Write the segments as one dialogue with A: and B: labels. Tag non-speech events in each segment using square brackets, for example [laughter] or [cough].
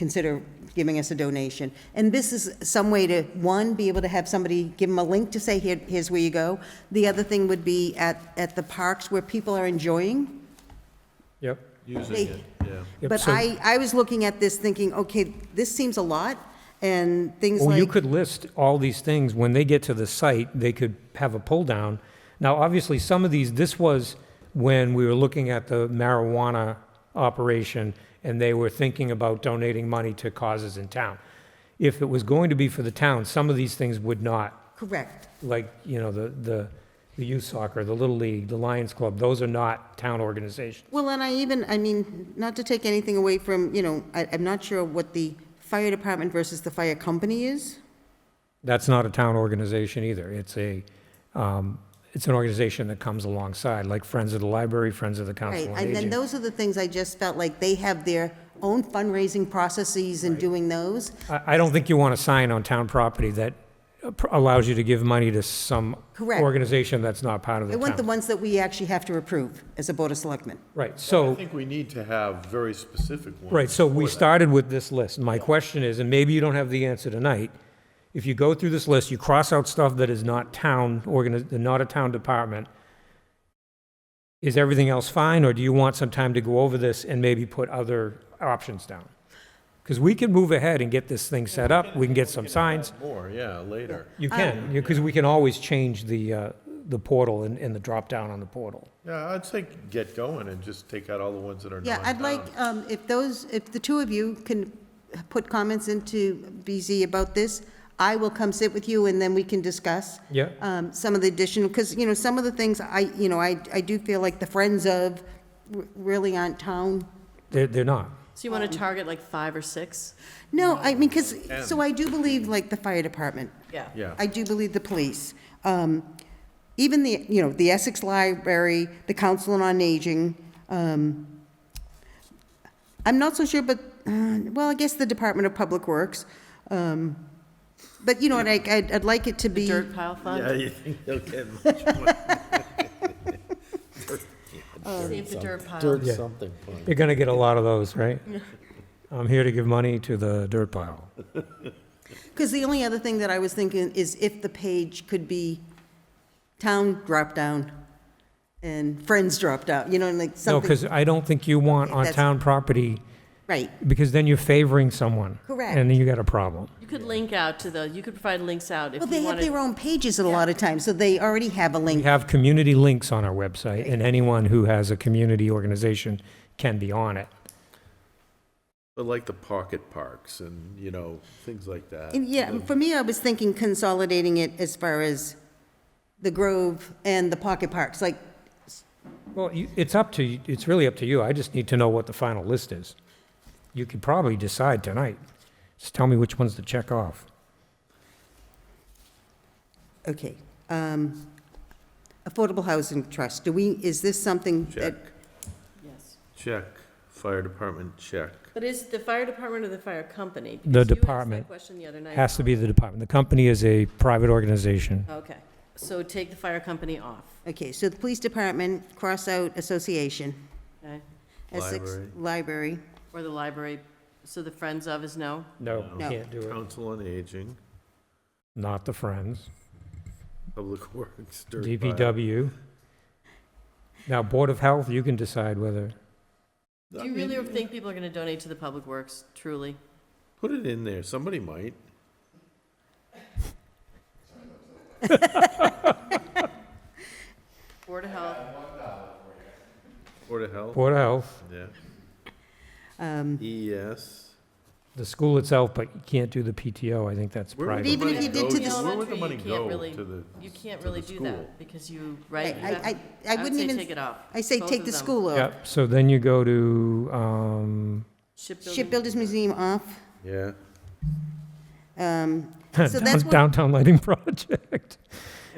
A: consider giving us a donation. And this is some way to, one, be able to have somebody, give them a link to say, here, here's where you go. The other thing would be at, at the parks where people are enjoying.
B: Yep.
A: They-
C: Using it, yeah.
B: Yep,
A: But
B: so-
A: I, I was looking at this thinking, okay, this seems a lot, and things
B: Well, you
A: like,
B: could list all these things. When they get to the site, they could have a pull down. Now, obviously, some of these, this was when we were looking at the marijuana operation and they were thinking about donating money to causes in town. If it was going to be for the town, some of these things would not,
A: correct,
B: like, you know, the, the, the youth soccer, the Little League, the Lions Club, those are not town organizations.
A: Well, and I even, I mean, not to take anything away from, you know, I, I'm not sure what the fire department versus the fire company is.
B: That's not a town organization either. It's a, um, it's an organization that comes alongside, like Friends of the Library, Friends of the
A: Right,
B: Council on
A: and then
B: Aging.
A: those are the things I just felt like they have their own fundraising processes and doing those.
B: I, I don't think you want a sign on town property that allows you to give money to some
A: Correct.
B: organization that's not part of
A: I
B: the
A: want the
B: town.
A: ones that we actually have to approve as a Board of Selectmen.
B: Right,
C: I
B: so,
C: think we need to have very specific ones.
B: right, so we
C: for that.
B: started with this list. My question is, and maybe you don't have the answer tonight, if you go through this list, you cross out stuff that is not town organi, not a town department, is everything else fine, or do you want some time to go over this and maybe put other options down? Because we can move ahead and get this thing set up, we can get some signs.
C: More, yeah, later.
B: You can, because we can always change the, uh, the portal and, and the drop-down on the portal.
C: Yeah, I'd say get going and just take out all the ones that are
A: Yeah,
C: non-town.
A: I'd like,
B: Uh,
A: um, if those, if the two of you can put comments into BZ about this, I will come sit with you and then we can discuss.
B: Yeah.
A: Um, some of the additional, because, you know, some of the things I, you know, I, I do feel like the friends of r- really aren't town.
B: They're, they're not.
D: So you want to target like five or six?
A: No, I mean, because, so I do believe like the fire department.
D: Yeah.
C: Yeah.
A: I do believe the police. Um, Even the, you know, the Essex Library, the Council on Aging. um, I'm not so sure, but, uh, well, I guess the Department of Public Works. um, But you know, what, I- I'd I'd like it to be,
D: Dirt pile
C: Yeah, [laughs]
D: fund?
C: you think they'll get much
A: [laughs]
C: more.
D: Save the dirt pile.
E: Dirt something.
B: You're gonna get a lot of those, right? I'm here to give money to the dirt pile.
A: because the only other thing that I was thinking is if the page could be town drop-down and friends drop-down, you know, and like
B: No,
A: something.
B: because I don't think you want on
A: That's-
B: town property,
A: Right,
B: because then you're favoring someone.
A: Correct.
B: And then you got a problem.
D: You could link out to the, you could provide links out if
A: well,
D: you
A: they have their
D: wanted.
A: own pages at a lot of times, so they already have a
B: We
A: link.
B: have community links on our website, and anyone who has a community organization can be on it.
C: But like the pocket parks and, you know, things like that.
A: And Yeah, [laughs] for me, I was thinking consolidating it as far as the Grove and the Pocket Parks, like,
B: Well, you- it's up to, y- it's really up to you. I just need to know what the final list is. You could probably decide tonight. Just tell me which ones to check off.
A: okay. um, Affordable Housing Trust, do we, is this something
C: Check,
A: that?
D: Yes.
C: check, fire department, check.
D: But is it the fire department or the fire company?
B: The
D: Because you asked that
B: department
D: question the other night.
B: Has to be the department. The company is a private organization.
D: Okay, so take the fire company off,
A: Okay, so the Police Department, cross out Association.
D: okay?
A: Essex
C: Library.
A: Library,
D: Or the library, so the friends of is no?
B: No,
A: No.
B: can't do it.
C: Council on Aging,
B: Not the Friends,
C: Public [laughs] Works, dirt pile.
B: DPW. Now, Board of Health, you can decide whether,
C: I
D: Do you really
C: mean,
D: think people are going to donate to the public works, truly?
C: Put it in there, somebody might.
D: Board of Health,
C: Board of Health,
B: Board of Health,
C: yeah. E
A: um,
C: ES.
B: the school itself, but you can't do the PTO. I think that's
C: Where would
B: private.
C: the
A: Even if
C: money
A: you did
C: go
A: to
C: to-
A: the-
C: Where would the
D: Elementary,
C: money
D: you can't
C: go
D: really-
C: to the?
D: you can't
C: to
D: really
C: the
D: do
C: school.
D: that, because you,
A: I,
D: right? you have-
A: I, I
D: I
A: I
D: would
A: wouldn't
D: say
A: even.
D: take it off.
A: I say
D: Both
A: take
D: of
A: the
D: them.
A: school off.
B: Yep, so then you go to, um,
D: Shipbuilding,
A: Shipbuilders Museum off.
C: Yeah. [laughs]
A: um, So
B: down- [laughs]
A: that's what-
B: downtown lighting project.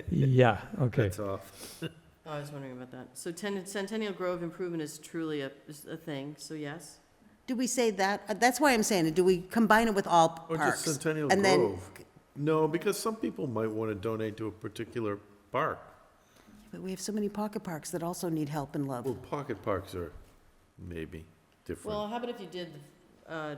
B: Yeah, okay.
C: That's off.
D: oh, I was wondering about that. So Ten- Centennial Grove improvement is truly a, is a thing, so yes?
A: Do we say that? Uh, That's why I'm saying it. Do we combine it with all
C: Or
A: parks?
C: just Centennial
A: And then-
C: Grove. No, because some people might want to donate to a particular park.
A: But we have so many pocket parks that also need help and love.
C: Well, pocket parks are maybe
D: Well,
C: different.
D: how about if you did, uh,